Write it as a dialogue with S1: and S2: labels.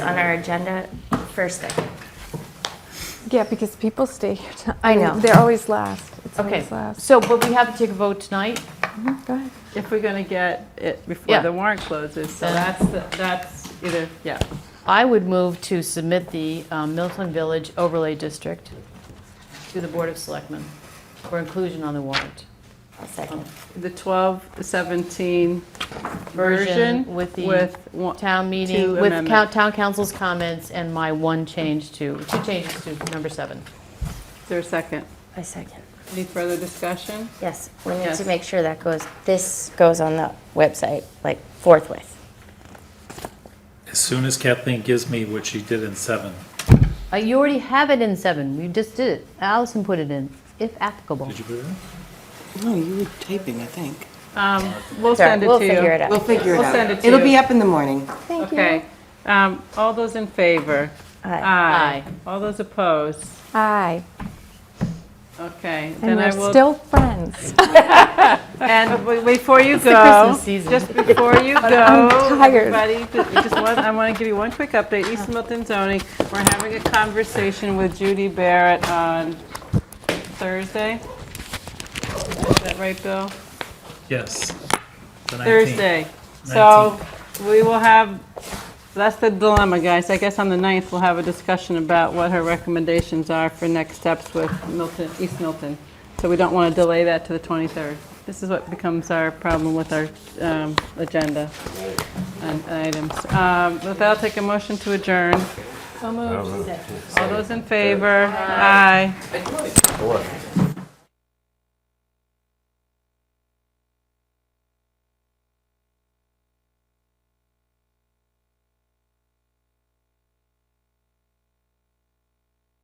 S1: on our agenda first thing.
S2: Yeah, because people stay here. till-
S1: I
S2: mean,
S1: know.
S2: They're always last. It's
S3: Okay,
S2: always last.
S3: so, but we have to take a vote tonight?
S2: Go ahead.
S4: If we're going to get it
S3: Yeah.
S4: before the warrant closes, so
S3: Then-
S4: that's, the- that's either, yeah.
S3: I would move to submit the um, Milton Village Overlay District to the Board of Selectmen for inclusion on the warrant.
S1: I'll second.
S4: The 12, the 17 version
S3: Version with the
S4: with, one-
S3: Town meeting,
S4: Two
S3: with
S4: amendment.
S3: cou- town council's comments and my one change to, two changes to number seven.
S4: is there a second?
S1: I second.
S4: Any further discussion?
S1: Yes, we need
S4: Yes.
S1: to make sure that goes, this goes on the website, like forthwith.
S5: As soon as Kathleen gives me what she did in seven,
S3: Uh, You already have it in seven, you just did it. Allison put it in, if applicable.
S5: did you put it in?
S6: No, you were typing, I think.
S4: Um, We'll
S1: Sorry,
S4: send it to you.
S1: we'll figure it out.
S6: We'll figure it
S4: We'll
S6: out.
S4: send it to
S6: It'll
S4: you.
S6: be up in the morning.
S2: Thank you.
S4: Okay. Um, All those in favor?
S1: Aye.
S4: Aye.
S3: Aye.
S4: All those opposed?
S2: Aye.
S4: Okay.
S2: And
S4: Then I
S2: we're
S4: will.
S2: still friends.
S4: And w- before you go.
S3: Christmas season.
S4: Just before you go.
S2: I'm tired.
S4: Everybody, ju- just one, I want to give you one quick update. East Milton zoning, we're having a conversation with Judy Barrett on Thursday. Is that right, Bill?
S5: Yes. The 19th.
S4: Thursday. So we will have, that's the dilemma, guys. I guess on the 9th, we'll have a discussion about what her recommendations are for next steps with Milton, East Milton. So we don't want to delay that to the 23rd. This is what becomes our problem with our um, agenda and items. Um, With that, I'll take a motion to adjourn. All those in favor? Aye.